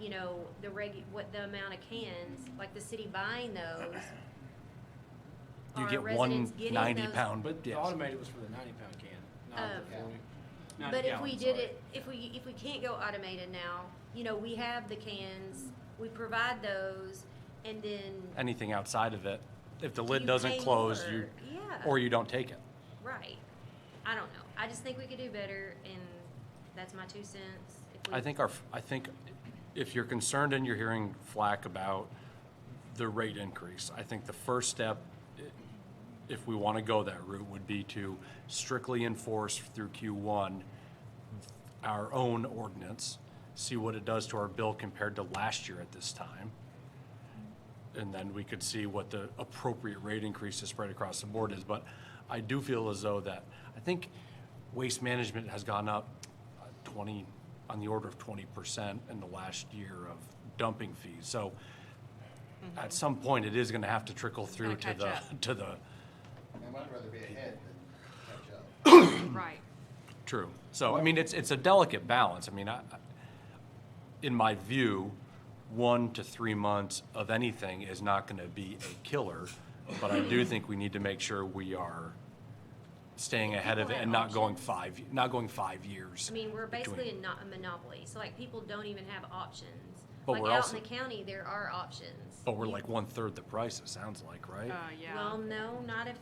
you know, the regu, what the amount of cans, like the city buying those. You are get residents one getting ninety those- pound, But the yes. automated was for the ninety pound can, not the Oh. forty. not the But if we did gallon, sorry. it, if we, if we can't go automated now, you know, we have the cans, we provide those, and then. anything outside of it, if the You lid doesn't pay close, more. you, Yeah. or you don't take it. Right. I don't know. I just think we could do better, and that's my two cents. If we- I think our, I think if you're concerned and you're hearing flack about the rate increase, I think the first step, i- if we want to go that route, would be to strictly enforce through Q1 our own ordinance, see what it does to our bill compared to last year at this time. And then we could see what the appropriate rate increase to spread across the board is. But I do feel as though that, I think waste management has gone up uh, 20, on the order of 20% in the last year of dumping fees. So at some point, it is going to have to trickle through to gotta the, catch to the, And I'd rather be ahead than catch up. Right. True. So, I mean, it's, it's a delicate balance. I mean, I, I- in my view, one to three months of anything is not gonna be a killer, but I do think we need to make sure we are staying ahead of it People and have not going options. five, not going five years. I mean, we're between. basically not a monopoly, so like people don't even have options. But Like we're out also- in the county, there are options. But we're like one-third the price, it sounds like, right? Uh, yeah. Well, no, not if,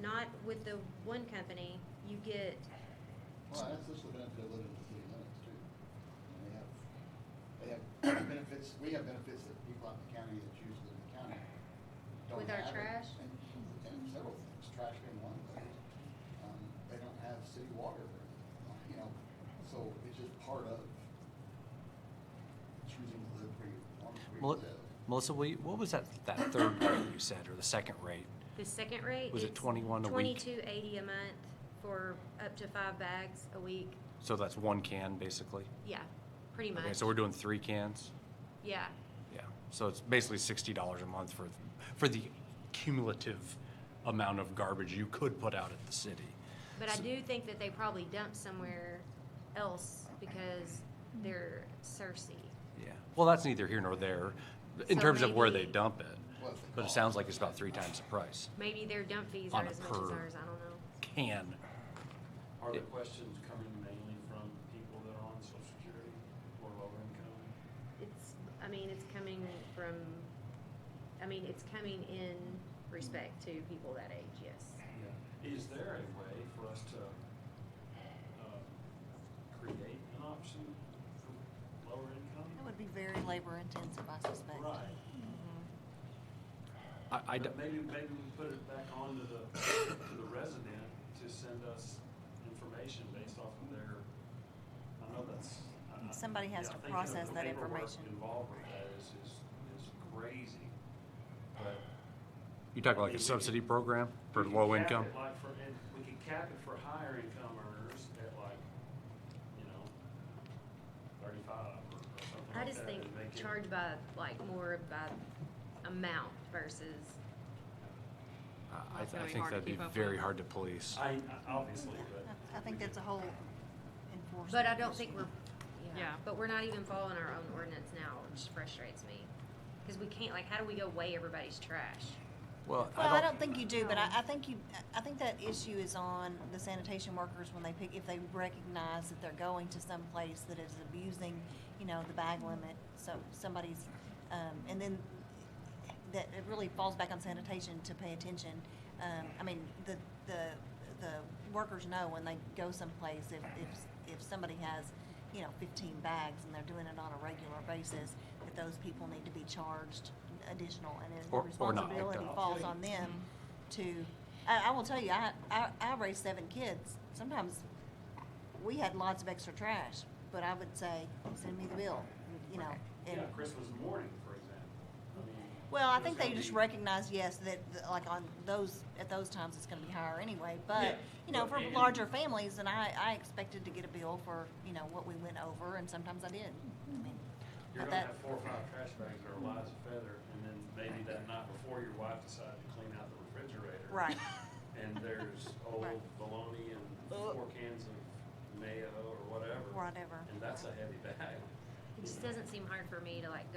not with the one company. You get, Well, that's just the benefit of living in the city limits too. And they have, they have benefits, we have benefits that people out in the county that choose to live in the county don't have. With our and- trash? And, and several things, trash being one of those. Um, they don't have city water, you know, so it's just part of choosing to live where you want, where Mel- you live. Melissa, will you- what was that, that third rate you said, or the second rate? the second rate. Was it 21 a week? Twenty-two eighty a month for up to five bags a week. So that's one can, basically? Yeah, pretty much. Okay, so we're doing three cans? Yeah, Yeah, so it's basically sixty dollars a month for, for the cumulative amount of garbage you could put out at the city. but I do think that they probably dump somewhere else because they're Cersei. Yeah, well, that's neither here nor there, in So terms of where they maybe- dump it, Well, if they but it call. sounds like it's about three times the price, Maybe their dump fees On are a as much as per- ours, I don't know. can. Are the questions coming mainly from people that are on social security or lower income? It's, I mean, it's coming from, I mean, it's coming in respect to people that age, yes. Is there a way for us to, uh, create an option for lower income? That would be very labor intensive, I suspect. Right. I, I d- But Maybe, maybe we put it back on to the, to the resident to send us information based off of their, I know that's. I- I- Somebody has yeah, to I think the- process the that paperwork information. Involved with that is, is, is crazy, but. you talking like a subsidy program for low We could cap income? it Like for, and we could cap it for higher income earners at like, you know, thirty-five or or something like that. I just think and make it- charge by, like, more by amount versus, I, I That's gonna be think hard to that'd be keep up very with. hard to police. I, I- obviously, but. I- I think that's a whole enforcement. but I don't think we're, yeah, Yeah. but we're not even following our own ordinance now, which frustrates me. Cause we can't, like, how do we go weigh everybody's trash? Well, Well, I don't think you do, but I, I think you, I think that issue is on the sanitation workers when they pick, if they recognize that they're going to some place that is abusing, you know, the bag limit, so somebody's, um, and then that it really falls back on sanitation to pay attention. Um, I mean, the, the, the workers know when they go someplace, if, if, if somebody has, you know, fifteen bags and they're doing it on a regular basis, that those people need to be charged additional and Or- the or not picked responsibility up. falls on them to, I, I will tell you, I, I, I raised seven kids. Sometimes we had lots of extra trash, but I would say, send me the bill, you know. and- Yeah, Christmas morning, for example. I mean, Well, I there's think they gonna just be- recognize, yes, that, that, like, on those, at those times, it's gonna be higher anyway, Yeah, but, you know, but for and- larger families, and I, I expected to get a bill for, you know, what we went over, and sometimes I did. I mean, You're but gonna that- have four or five trash bags that are light as a feather, and then maybe that night before, your wife decided to clean out the refrigerator. Right. And there's old Right. bologna and Ugh. four cans of mayo or whatever. Whatever. And that's a heavy bag. just doesn't seem hard for me to like go